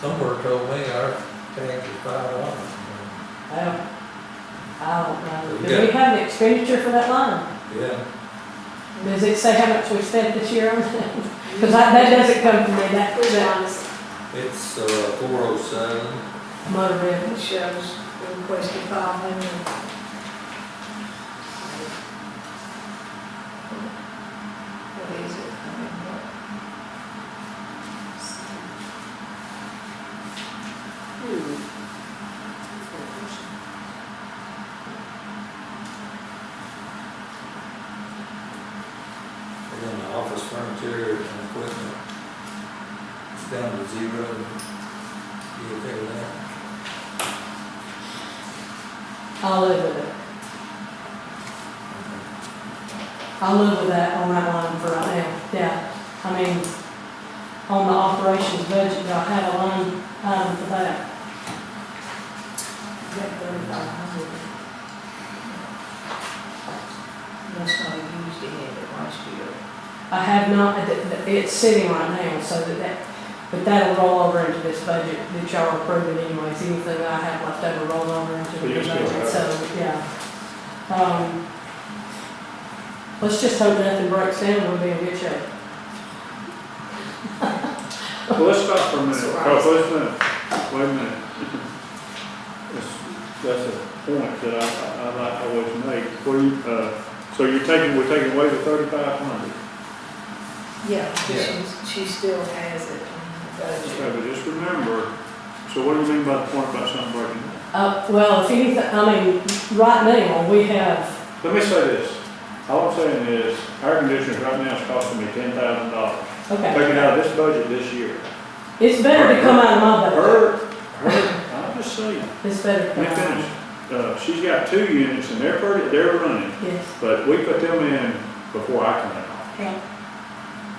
somewhere told me our tax is five dollars. I don't, I don't know, We do we have an expenditure for that line? Yeah, Does it say how much we spent this year on that? Cause I, that doesn't come to me, that, Which that ones it's, uh, four oh seven, motor vehicle. it shows the requested five hundred. What is it? I mean, what? and then the office furniture and equipment. It's down to zero. You okay with that? I'll live with it. I'll live with that on that line for right now, yeah. I mean, on the operations budget, y'all have a line, um, for that. Is that thirty-five hundred? That's not used in it last year. I have not, th- th- it's sitting right now, so that, that, but that'll roll over into this budget that y'all are approving anyways. Anything that I have left over roll over into Well, you the still have budget, it. so, yeah. Um, let's just hope nothing breaks down, we'll be in good shape. Well, let's stop for a minute, So, oh, wait a minute, wait a minute. That's, that's a point that I, I, I like always make, where you, uh, so you're taking, we're taking away the thirty-five hundred. Yeah, but Yeah. she's, she still has it on the budget. Okay, but just remember, so what do you mean by the point about something breaking down? Uh, well, if anything, I mean, right now, we have, Let me say this, all I'm saying is, air conditioners right now is costing me ten thousand dollars. okay, Taking out of this budget this year. it's better to come out of my budget. Her, her, I'm just saying, It's better to come let me out. finish. Uh, she's got two units and they're pretty, they're running. Yes, But we put them in before I come out. yeah,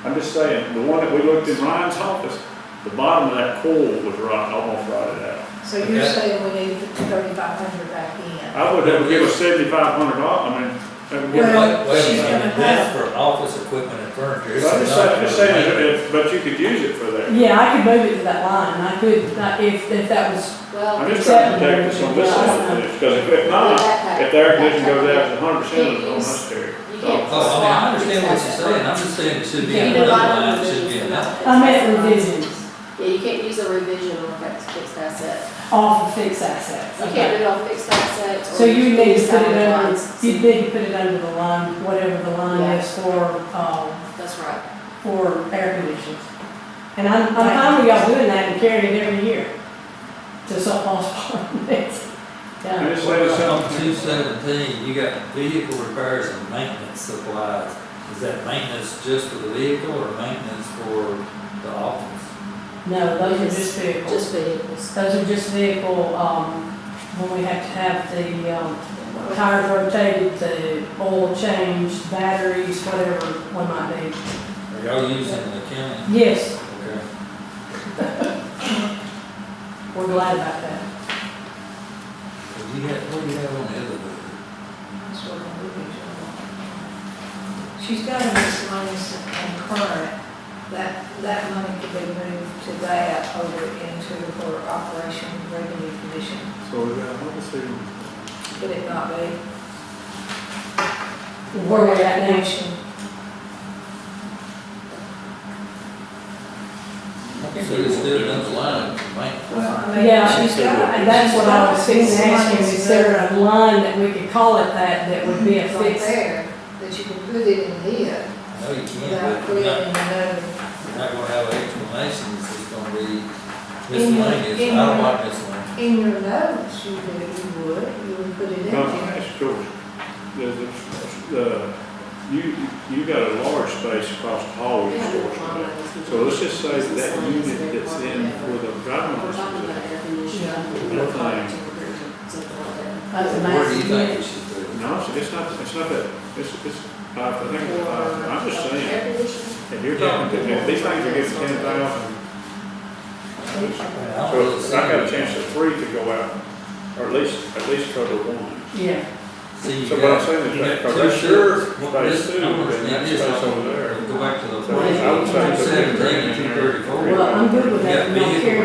I'm just saying, the one that we looked in Ryan's office, the bottom of that coil was rot, almost rotted out. So you're Okay. saying we need to put thirty-five hundred back in? I would have given seventy-five hundred dollars, I mean, that would Wait, give- Well, wait a she's minute, gonna that's for office equipment and furniture. I'm It's just not saying, I'm just for saying, maintenance. that- but you could use it for that. yeah, I could move it to that line, I could, I- if, if that was, I'm Well, just trying to protect us on this side of this, because if, if not, if their condition goes out, it's hundred percent of the unnecessary. Oh, I mean, I understand what you're saying, I'm just saying it should be Can't in do a another lot of line, it should be in revisions. that. I meant revisions, Yeah, you can't use a revision on fixed, fixed asset. off of fixed assets. You can't do it on fixed assets. or So you need to put it decide under, lines. you'd need to put it under the line, whatever the Yeah. line is for, um, That's right. for air conditioning. And I'm, I'm fine with y'all doing that and carrying it every year to some department. I'm Yeah, just saying Well, on something. two seventeen, you got vehicle repairs and maintenance supplies. Is that maintenance just for the vehicle or maintenance for the office? no, those are just vehicles. Just vehicles. Those are just vehicle, um, when we have to have the, um, tires rotated, the oil changed, batteries, whatever one might need. Are y'all using the county? Yes, Okay. we're glad about that. Well, You had, what do you have on the other one? She's got a miscellaneous and current, that, that money could be moved to that over into her operation revenue commission, So we got, let me see. could it not be? Where we're at now, Commission. I think we just did another line, for maintenance. Well, I mean, Yeah, she's got- and that's what I was she's thinking, got asking, is there a line that we could call it that, that would be a miscellaneous right fixed? there, that you can put it in here, I know you without can't, but you're not, creating another. you're not gonna have explanations, it's gonna be In your- miscellaneous, in I don't your- like miscellaneous. In your notes, you would, you would, you would put it in No, I there. asked George, the, the- the, you, you got a large space across the hall, you storage space. So let's just say that that unit that's in for the We're talking driving about air conditioning. Yeah. We're talking about something like that. That's a Where do you nice think unit. we should do it? No, it's it's not, it's not that, it's, it's, I think, it's five. I'm just saying, Air conditioning. if you're talking, to- if these things are getting ten thousand, I don't really so I got a see- chance of three to go out, or at least, at least cover one. Yeah, See, you So what I'm got- saying is you that- got because two that's your shirts, one- space this- too, I'm gonna and sneak that's this space on. over there. Go back to the So point, I would say two put that seventeen green and in two there. thirty-four. well, I'm good with that, Yeah, not vehicle carrying